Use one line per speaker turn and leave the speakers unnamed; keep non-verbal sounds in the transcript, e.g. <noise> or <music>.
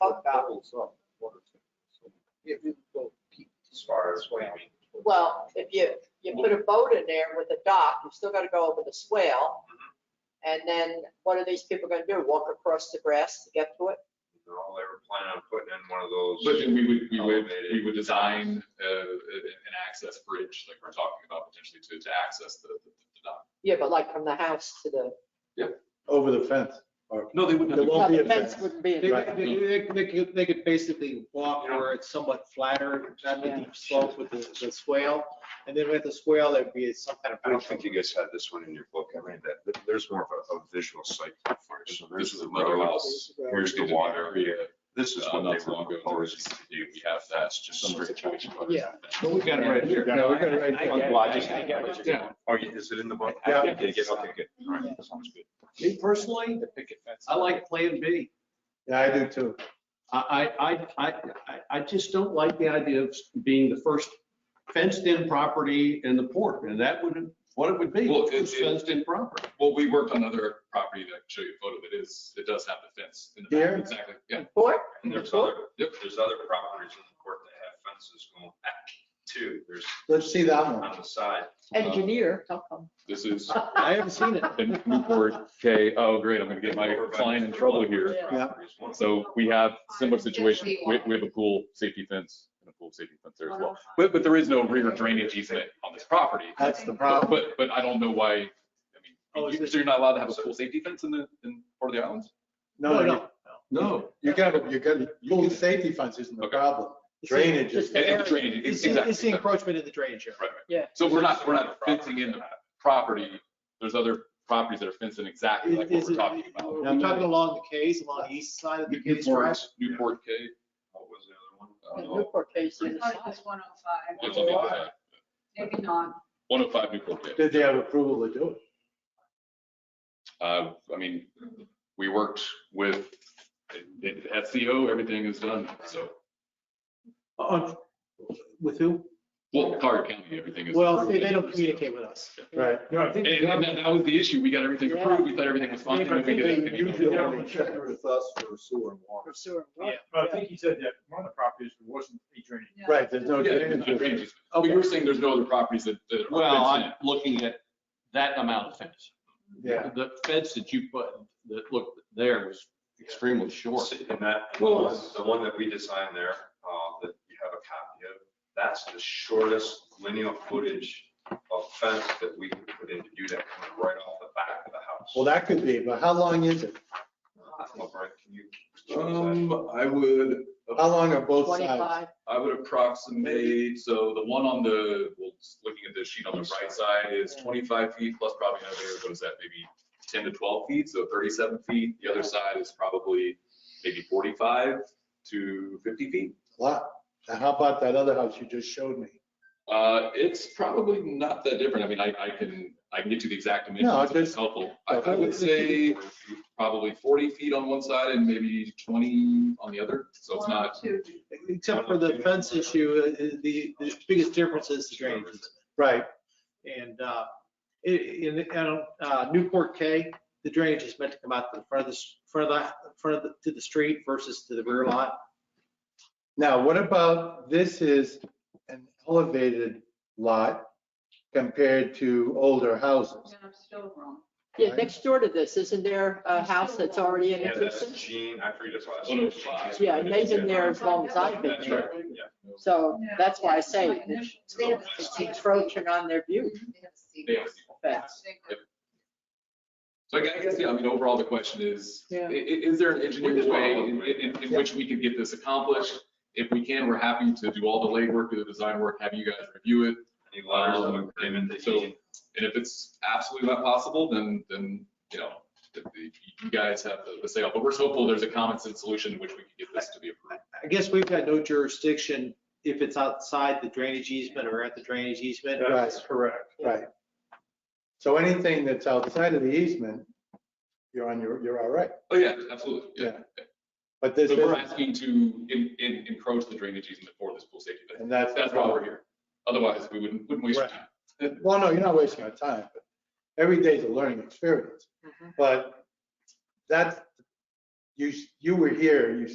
out about if you go peep.
As far as what you mean.
Well, if you, you put a boat in there with a dock, you've still got to go over the swale. And then what are these people going to do? Walk across the grass to get to it?
No, they were planning on putting in one of those.
But then we would, we would,
Elevated.
we would design uh, an access bridge, like we're talking about potentially to, to access the, the the dock.
Yeah, but like from the house to the,
Over the fence. or-
No, they wouldn't. have
There
to-
no,
won't be
the
a
fence
fence.
wouldn't be.
They
in-
Right.
could, they could- they could, they could basically walk where it's somewhat flatter, not the deep slope with the, the swale. And then with the swale, there'd be some kind of.
I don't think you guys had this one in your book. I mean, that, that- there's more of a- a visual site. plan for it. So
This
there's
is
the
another
road.
house.
Here's the water. This is
Uh,
what
not
they
so
were
long ago, there
proposing
was-
to do. We have that, just
Similar
straight.
situation.
Yeah.
But we've got it right here.
No,
we've got it right
I- I get
here.
it.
Well, I just-
I get what you're
Yeah.
doing.
Oh, yeah, is it in the book?
Yeah.
Did it get- Okay, good. All right, that sounds good.
Me personally,
The picket fence.
I like Plan B.
Yeah, I do too.
I, I, I, I- I- I just don't like the idea of being the first fenced-in property in the port, and that would, what it would be,
Well, it-
first
it-
fenced-in property.
Well, we worked on another property that I can show you a photo that is, it does have the fence in the
Here?
back, exactly, yeah.
Or,
And there's
Cool.
other, yep, there's other properties in the court that have fences going back too. There's
Let's see that one.
on the side.
engineer, how come?
This is
I haven't seen <laughs> it.
in Newport, okay, oh, great, I'm gonna get my
Over by
client in
Mr.
trouble
Lover's
here.
Yeah.
properties. One of
So we have similar situation, we, we have a pool safety fence and a pool safety fence there as well. But, but there is no rear drainage easement on this property.
That's the
But,
problem.
but I don't know why, I
Oh,
mean,
is
you-
this-
so you're not allowed to have a pool safety fence in the, in part of the islands?
No, no,
No.
you got, you got, full safety fence isn't the
Okay.
problem. Drainage is.
Just-
And- and the drainage,
It's, the-
exactly,
it's the
exactly.
encroachment in the drainage area.
Right, right.
Yeah.
So we're not, we're not fencing in the property, there's other properties that are fenced in exactly like what
Is-
we're
is it-
talking about.
We're talking along the K's, along the east side of the K's, right?
Newport, Newport K.
What was the other one?
I
The
don't know.
Newport case
I
is
thought it
aside.
was 105.
It's on the other side.
Maybe not.
105 Newport K.
Did they have approval to do it?
Uh, I mean, we worked with it- it- SEO, everything is done, so,
Uh, With who?
well, Target County, everything is.
Well,
approved.
they they don't communicate with us.
Right.
No, I think.
And and that that was the issue, we got everything approved, we thought everything was fine. and then we get-
They usually have a check.
with us for sewer and water.
For sewer.
Yeah, but I think he said that one of the properties wasn't a drainage.
Yeah.
Right, there's no
Yeah, it's not
drainage.
drainage. Oh, you were saying there's no other properties that. that are
Well,
fenced in.
I'm looking at that amount of fence.
Yeah.
The fence that you put, that looked there was extremely short.
And that, and the one- the one that we designed there, uh, that you have a copy of, that's the shortest linear footage of fence that we could put in to do that, coming right off the back of the house.
Well, that could be, but how long is it?
Uh, Brian, can you-
Um, I would,
How long are both sides?
25.
I would approximate, so the one on the, well, just looking at the sheet on the right side is twenty-five feet plus probably another, what is that, maybe ten to twelve feet, so thirty-seven feet. The other side is probably maybe forty-five to fifty feet.
A Lot. And how about that other house you just showed me?
Uh, it's probably not that different. I mean, I, I can, I can get you the exact
No,
dimensions if it's
just-
helpful. I, I would say probably forty feet on one side and maybe twenty on the other, so it's not.
102.
Except for the fence issue, uh, the, the biggest difference is the drainage. easement.
Right,
And uh, in, in, I don't- uh, Newport K, the drainage is meant to come out to the front of the, s- front of the, front of the, to the street versus to the rear lot.
now what about, this is an elevated lot compared to older houses.
Yeah, I'm still wrong.
Yeah, next door to this, isn't there a house that's already in
Yeah, that's
existence?
Gene, I forget his last.
Oh, no,
name.
it's five.
Yeah, and they've been there as long as I've been
That's
there.
right, yeah.
So that's why I say
Initial.
it's encroaching on their view.
They have-
assim, Fence.
So I gue- I guess, yeah, I mean, overall, the question is, i-
Yeah.
i- is there an engineered way in, in, in
Yeah.
which we could get this accomplished? If we can, we're happy to do all the legwork, do the design work, have you guys review it.
Any letters of agreement that
So-
Gene
And if it's absolutely not possible, then, then, you know, the- the- you guys have the- the say, but we're hopeful there's a common sense solution in which we can get this to be approved.
I guess we've got no jurisdiction if it's outside the drainage easement or at the drainage easement.
Right.
correct.
Right. So anything that's outside of the easement, you're on your, you're all right.
Oh, yeah, absolutely, yeah.
But this
So we're
is,
asking to in, in, encroach the drainage easement for this pool safety fence.
and that's.
That's why we're here. Otherwise, we wouldn't, wouldn't waste your time.
Well, no, you're not wasting our time, but every day's a learning experience. But that's, you, you were here, you